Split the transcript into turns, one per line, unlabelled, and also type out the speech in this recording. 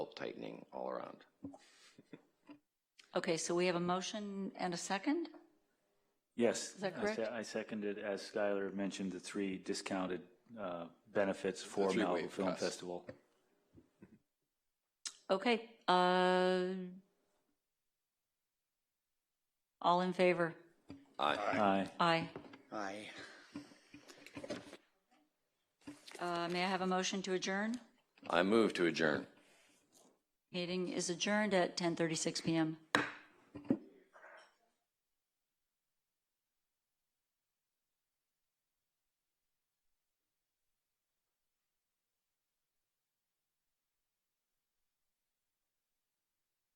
tightening all around.
Okay, so we have a motion and a second?
Yes.
that
I se-
correct?
I seconded, as Skylar mentioned, the three discounted uh, benefits for
three
Malibu
wave
Film
pass.
Festival.
Okay, uh, all in favor?
Aye.
Aye.
Aye.
Uh, May I have a motion to adjourn?
I move to adjourn.
Meeting is adjourned at 10:36 PM.